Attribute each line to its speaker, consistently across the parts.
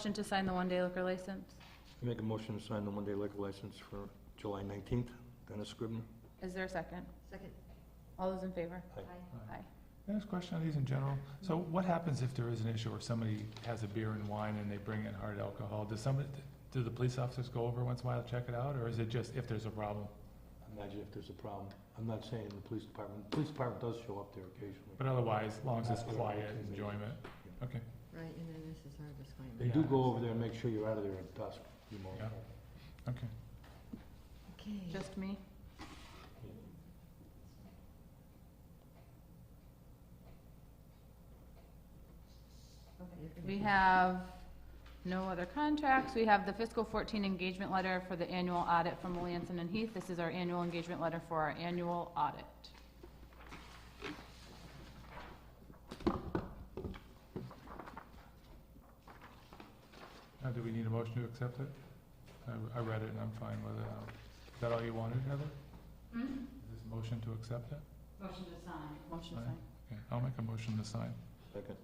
Speaker 1: Motion to sign the one-day liquor license.
Speaker 2: I Make a motion to sign the one-day liquor license for July 19th, Dennis Scribner.
Speaker 1: Is there a second?
Speaker 3: Second.
Speaker 1: All those in favor?
Speaker 2: Aye.
Speaker 1: Aye.
Speaker 4: Can I ask a question on these in general? So what happens if there is an issue or somebody has a beer and wine and they bring in hard alcohol? Does somebody, do the police officers go over once in a while to check it out, or is it just if there's a problem?
Speaker 2: Imagine if there's a problem. I'm not saying the police department, the police department does show up there occasionally.
Speaker 4: But otherwise, as long as it's quiet, enjoyment, okay.
Speaker 3: Right, and then this is our disclaimer.
Speaker 2: They do go over there and make sure you're out of there at dusk. you know.
Speaker 4: Yeah. Okay.
Speaker 3: Okay,
Speaker 1: Just me? We have no other contracts. We have the fiscal 14 engagement letter for the annual audit from Williamson and Heath. This is our annual engagement letter for our annual audit.
Speaker 4: Now, do we need a motion to accept it? I, I read it and I'm fine with it. Um, Is that all you wanted, Heather? Is this a motion to accept it?
Speaker 1: Motion to sign. Motion to
Speaker 4: Aye.
Speaker 1: sign.
Speaker 4: Okay, I'll make a motion to sign.
Speaker 2: Second.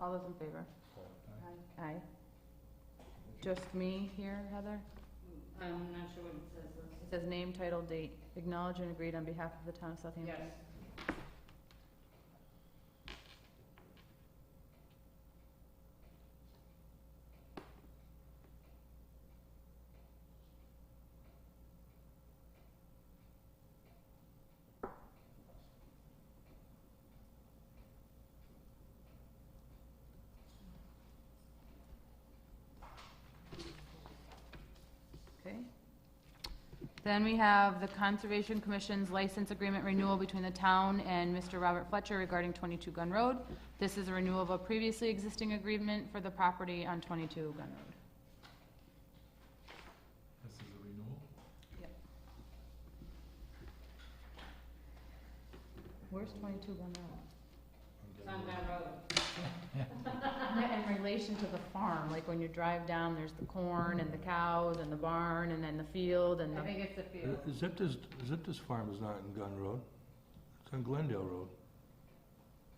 Speaker 1: All those in favor? Aye. Aye. Just me here, Heather?
Speaker 5: I'm not sure what it says.
Speaker 1: It says name, title, date, acknowledged and agreed on behalf of the town of Southampton.
Speaker 5: Yes.
Speaker 1: Okay. Then we have the Conservation Commission's license agreement renewal between the town and Mr. Robert Fletcher regarding 22 Gun Road. This is a renewal of a previously existing agreement for the property on 22 Gun Road.
Speaker 4: This is a renewal?
Speaker 1: Where's 22 Gun Road?
Speaker 5: It's on that road.
Speaker 1: In relation to the farm, like when you drive down, there's the corn and the cows and the barn and then the field and the,
Speaker 5: I think it's a field.
Speaker 2: Uh, Zipta's, Zipta's farm is not in Gun Road. It's on Glendale Road.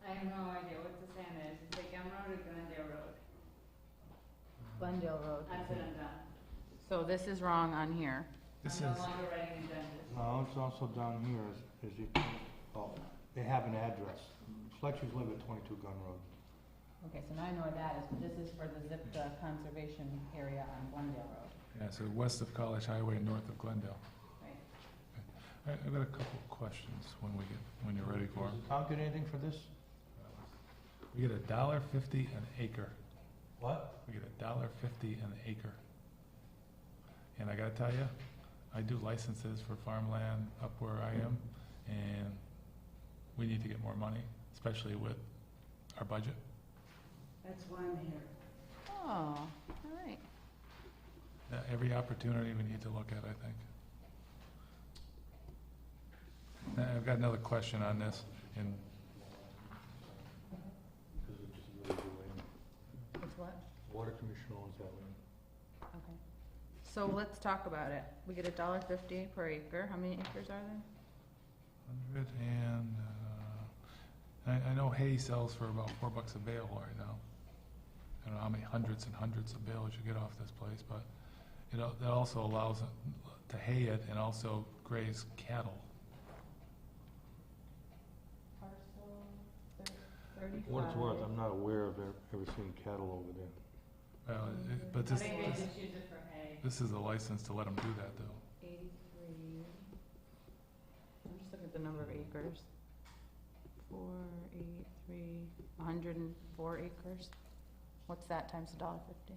Speaker 5: I have no idea what the sign is. It's like I'm road or Glendale Road.
Speaker 1: Glendale Road.
Speaker 5: That's what I'm done.
Speaker 1: So this is wrong on here.
Speaker 4: This is,
Speaker 5: I'm no longer writing agendas.
Speaker 2: No, it's also down here, is, is the, oh, they have an address. Fletcher's live at 22 Gun Road.
Speaker 1: Okay, so now I know where that is, but this is for the ZIPTA conservation area on Glendale Road.
Speaker 4: yeah, so west of College Highway, north of Glendale.
Speaker 1: Right.
Speaker 4: I, I've got a couple of questions when we get, when you're ready for 'em.
Speaker 2: Does the town get anything for this?
Speaker 4: We get a dollar fifty an acre.
Speaker 2: What?
Speaker 4: We get a dollar fifty an acre. And I gotta tell you, I do licenses for farmland up where I am, and we need to get more money, especially with our budget.
Speaker 5: That's why I'm here.
Speaker 1: Oh, all right.
Speaker 4: Uh, Every opportunity we need to look at, I think. Now, I've got another question on this, and
Speaker 2: Because it's just really good land.
Speaker 1: It's what?
Speaker 2: Water commission owns that land.
Speaker 1: Okay. So let's talk about it. We get a dollar fifty per acre. How many acres are there?
Speaker 4: hundred and, uh, I, I know hay sells for about four bucks a bale right now. I don't know how many hundreds and hundreds of bales you get off this place, but it, al- that also allows it to hay it and also graze cattle.
Speaker 1: Parcel
Speaker 2: What it's worth, I'm not aware of ever- ever seeing cattle over there.
Speaker 4: Well, Uh, it- but
Speaker 5: I
Speaker 4: this,
Speaker 5: think they
Speaker 4: this,
Speaker 5: just use it for hay.
Speaker 4: this is a license to let them do that though.
Speaker 3: Eighty-three,
Speaker 1: I'm just looking at the number of acres. Four, eight, three, hundred and four acres. What's that times a dollar fifty?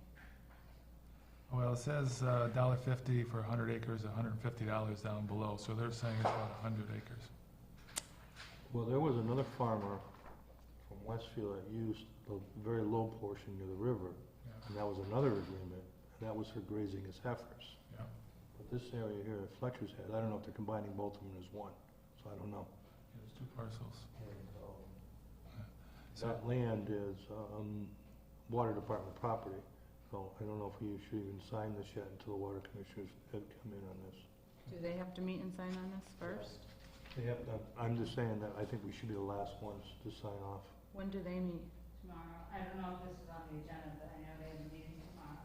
Speaker 4: Well, it says uh dollar fifty for hundred acres, hundred and fifty dollars down below, so they're saying it's about hundred acres.
Speaker 2: Well, there was another farmer from Westfield that used the very low portion near the river, and that was another agreement, and that was for grazing his heifers.
Speaker 4: Yeah.
Speaker 2: But this area here that Fletcher's had, I don't know if they're combining both of them as one, so I don't know.
Speaker 4: There's two parcels.
Speaker 2: um, That land is, um, water department property, so I don't know if we should even sign this yet until the water commissioners have come in on this.
Speaker 1: Do they have to meet and sign on this first?
Speaker 2: They have, I'm just saying that I think we should be the last ones to sign off.
Speaker 1: When do they meet?
Speaker 5: Tomorrow, I don't know if this is on the agenda, but I know they have a meeting